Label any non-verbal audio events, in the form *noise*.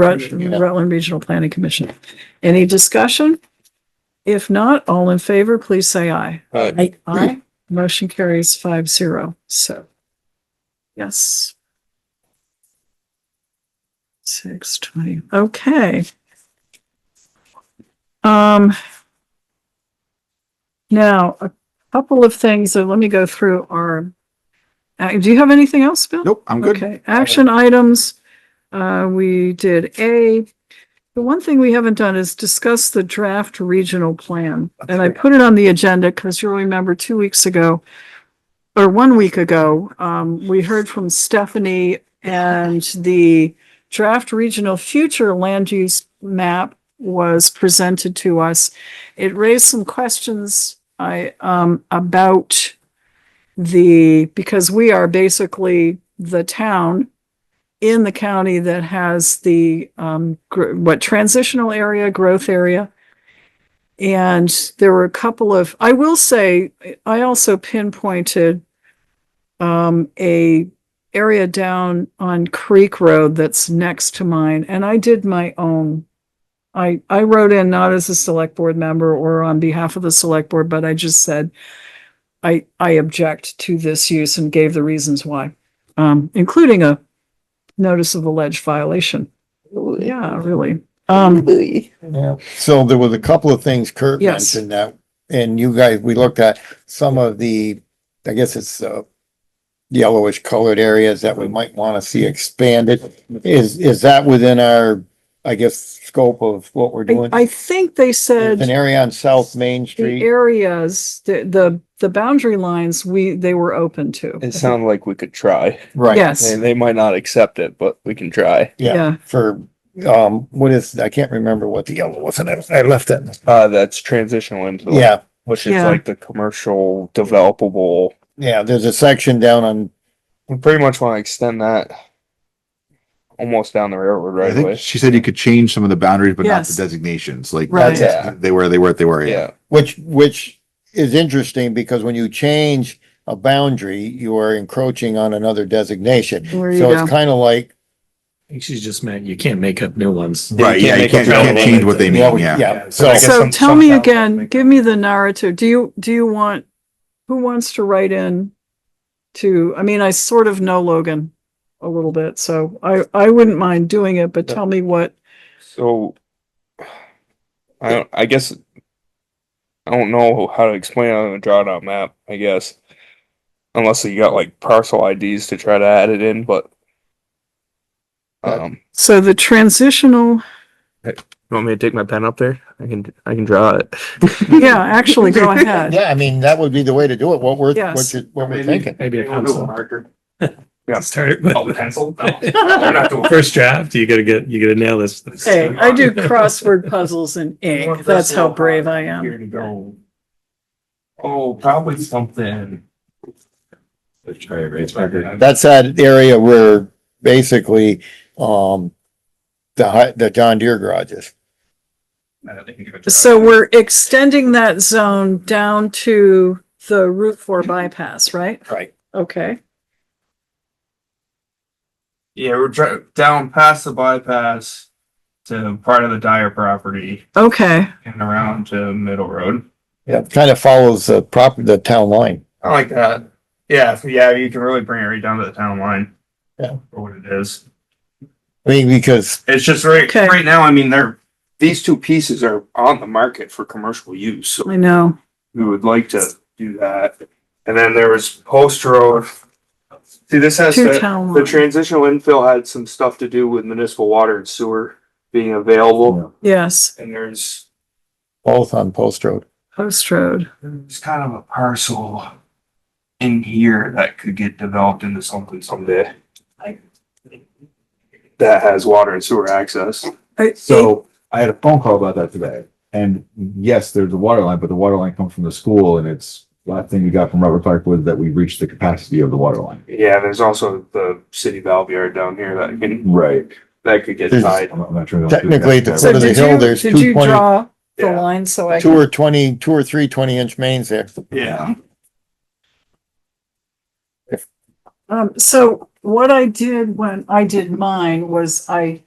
Rut- Yeah. Rutland Regional Planning Commission. Any discussion? If not, all in favor, please say aye. Aye. Aye. Motion carries five zero, so. Yes. Six twenty, okay. Um. Now, a couple of things, so let me go through our. uh, Do you have anything else, Bill? Nope, I'm good. Okay, action items. Uh, we did A. The one thing we haven't done is discuss the draft regional plan. And I put it on the agenda because you'll remember two weeks ago or one week ago, um, we heard from Stephanie and the draft regional future land use map was presented to us. It raised some questions I, um, about the, because we are basically the town in the county that has the, um, gr- what transitional area, growth area. And there were a couple of, I will say, I also pinpointed um, a area down on Creek Road that's next to mine, and I did my own. I, I wrote in not as a select board member or on behalf of the select board, but I just said, I, I object to this use and gave the reasons why, um, including a notice of alleged violation. Yeah, really. Um, Yeah. So there was a couple of things Kurt Yes. mentioned that, and you guys, we looked at some of the, I guess it's, uh, yellowish colored areas that we might want to see expanded. Is, is that within our, I guess, scope of what we're I, doing? I think they There's said An area on South Main the Street. areas, the, the, the boundary lines, we, they were open to. It sounded like we could try. Right. Yes, And they might not accept it, but we can try. Yeah, yeah, for, um, what is, I can't remember what the yellow was, and I I left that. Uh, that's transitional into. Yeah, Which is Yeah. like the commercial developable. yeah, there's a section down on We pretty much want to extend that almost down the railroad I right think away. she said you could change some of the boundaries, but not Yes. the designations, like. Right. Yeah. They were, they were, they were, yeah. Yeah, Which, which is interesting because when you change a boundary, you are encroaching on another designation. There you So go. it's kind of like, I think she's just meant you can't make up new ones. Right, yeah, you make can't, you it can't change relevant. what they Yeah, mean, we- yeah. yeah. So- I guess So some- tell some me towns again, make give me the narrative. Do you, do you want, who wants to write in to, I mean, I sort of know Logan a little bit, so I, I wouldn't mind doing it, but tell me what, So. I don't, I guess. I don't know how to explain it on a drawdown map, I guess. Unless you got like parcel IDs to try to add it in, but. But- Um, so the *laughs* transitional, you want me to take my pen up there? I can, I can draw *laughs* it. yeah, actually, go ahead. *laughs* yeah, I mean, that would be the way to do it. What we're, Yes. what you, what we're thinking. Maybe a pencil. marker. Yeah. *laughs* Start with. Oh, pencil? No. *laughs* First draft, you gotta get, you gotta nail this. this Hey, thing. I *laughs* do crossword puzzles in ink. That's how brave I am. Here to go. Oh, probably something. Let's try it, right? It's better. That's that area where basically, um, the, hi- the John Deere garages. So we're extending that zone down to the Route Four bypass, right? Right. Okay, Yeah, we're dri- down past the bypass to part of the Dyer property okay, and around to Middle Road. Yeah, kind of follows the proper, the town line. I like that. Yeah, so yeah, you can really bring it right down to the town line. Yeah. For what it is. I mean, because, It's just right, Okay. right now, I mean, they're, these two pieces are on the market for commercial use, so I know. we would like to do that. And then there was Post Road. See, this has Two the, town the line. transitional infill had some stuff to do with municipal water and sewer being available. Yes, And there's, both on Post Road. Post Road. there's kind of a parcel in here that could get developed into something someday. That has water and sewer access. I- So- I had a phone call about that today. And yes, there's a water line, but the water line comes from the school and it's, last thing we got from Robert Clark was that we reached the capacity of the water line. Yeah, there's also the city valve yard down here that can, Right. that could get There's- tied. I'm not sure. Technically, the So foot of the did you, hill, there's did you 220 draw the Yeah. line so I Two can, or twenty, two or three twenty inch mains there. Yeah. um, so what I did when I did mine was I